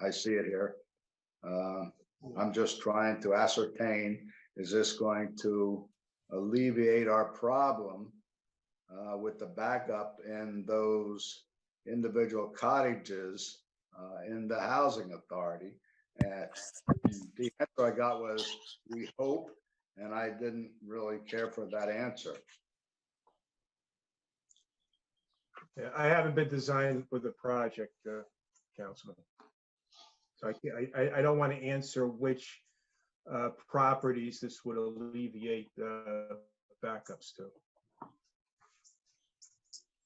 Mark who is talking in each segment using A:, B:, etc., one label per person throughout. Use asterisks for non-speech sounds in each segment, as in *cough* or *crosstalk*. A: I see it here. Uh, I'm just trying to ascertain, is this going to alleviate our problem uh, with the backup in those individual cottages uh, in the housing authority? And the answer I got was, we hope, and I didn't really care for that answer.
B: Yeah, I haven't been designed with the project, uh, Councilman. So I, can't- I, I- I don't want to answer which uh, properties this would alleviate uh, backups to.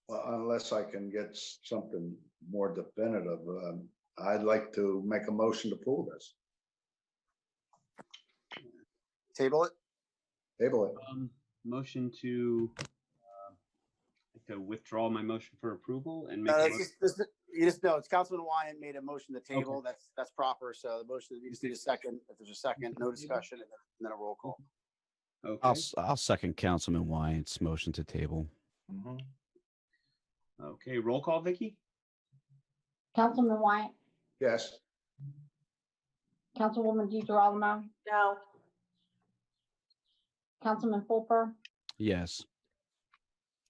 A: Well, unless I can get s- something more definitive, um, I'd like to make a motion to pull this,
C: Table it?
A: table it.
D: Um, motion to, uh, to withdraw my motion for approval and make,
C: No,
D: a
C: it's
D: mo-
C: just, this- you just know, it's Councilman Wyatt made a motion to table. That's, that's proper. So the motion, you just need a second. If there's a second, no discussion, and then- and then a roll call.
E: I'll,
D: okay,
E: s- I'll second Councilman Wyatt's motion to table.
D: okay, roll call, Vicky?
F: Councilman Wyatt,
A: Yes,
F: Councilwoman DeGirolamo,
G: No.
F: Councilman Fulper,
E: Yes.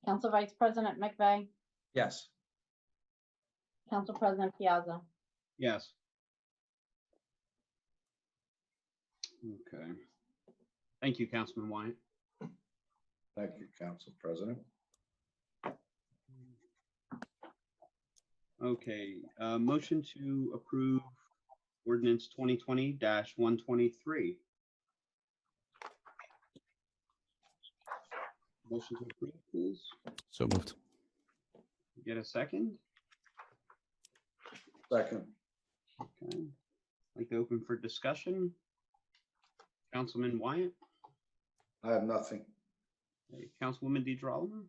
F: Council Vice President McVeigh,
D: Yes.
F: Council President Piazza.
D: Yes. Okay. Thank you, Councilman Wyatt.
A: thank you, Council President.
D: Okay, uh, motion to approve ordinance twenty twenty one twenty-three. Motion to approve, please.
E: So moved.
D: Get a second?
A: Second,
D: Okay, like to open for discussion. Councilman Wyatt,
A: I have nothing.
D: Hey, Councilwoman DeGirolamo?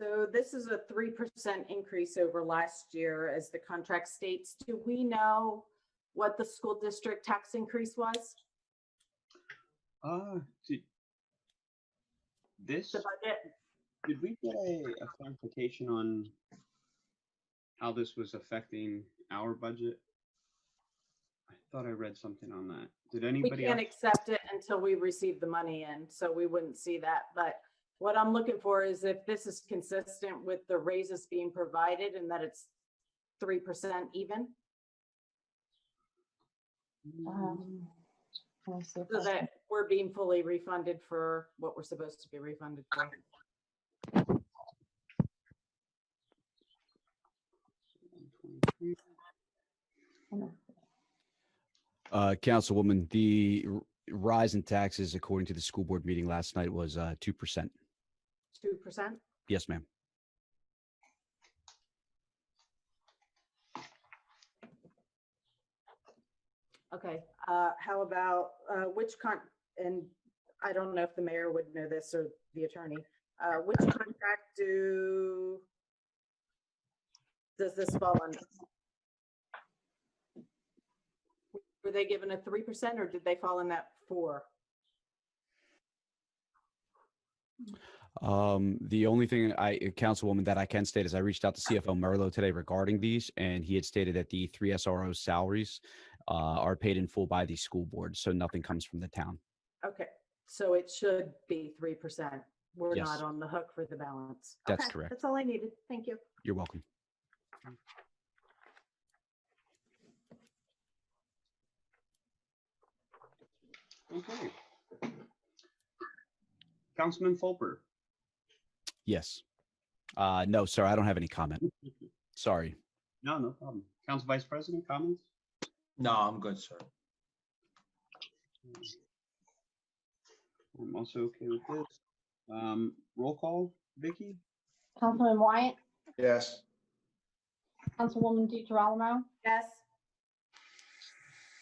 G: So this is a three percent increase over last year as the contract states. Do we know what the school district tax increase was?
D: Uh, did this,
G: The budget?
D: did we get a a clarification on how this was affecting our budget? I thought I read something on that. Did
G: We
D: anybody?
G: can't
D: else-
G: accept it until we receive the money in, so we wouldn't see that. But what I'm looking for is if this is consistent with the raises being provided and that it's three percent even,
F: Um, let me see if
G: so
F: I-
G: that we're being fully refunded for what we're supposed to be refunded for.
E: Uh, Councilwoman, the r- rise in taxes, according to the school board meeting last night, was uh, 2%.
G: Two percent?
E: Yes, ma'am.
G: Okay, uh, how about, uh, which con, and I don't know if the mayor would know this or the attorney, uh, which contract do does this fall under? Were they given a three percent or did they fall in that four?
E: Um, the only thing I, uh, Councilwoman, that I can state is I reached out to CFO Merlo today regarding these, and he had stated that the three SRO salaries uh, are paid in full by the school board, so nothing comes from the town.
G: Okay, so it should be three percent. We're
E: Yes.
G: not on the hook for the balance.
E: That's
G: Okay,
E: correct.
G: That's all I needed. Thank you.
E: You're welcome.
D: Okay. Councilman Fulper,
E: Yes. Uh, no, sir, I don't have any comment. Sorry.
D: no, no problem. Council Vice President, comments?
H: No, I'm good, sir.
D: I'm also okay with this. Um, roll call, Vicky?
F: Councilman Wyatt,
A: Yes,
F: Councilwoman DeGirolamo,
G: Yes,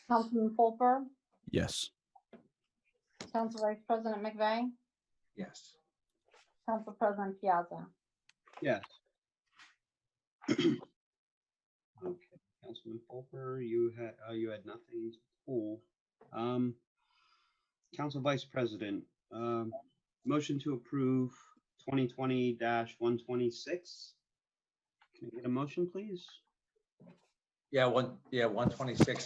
F: Councilman Fulper,
E: Yes.
F: Council Vice President McVeigh,
H: Yes.
F: Council President Piazza.
D: Yes. *clears throat* Okay, Councilman Fulper, you had, uh, you had nothing to pull. Um, Council Vice President, um, motion to approve twenty twenty one twenty-six. Can I get a motion, please?
H: Yeah, one, yeah, one twenty-six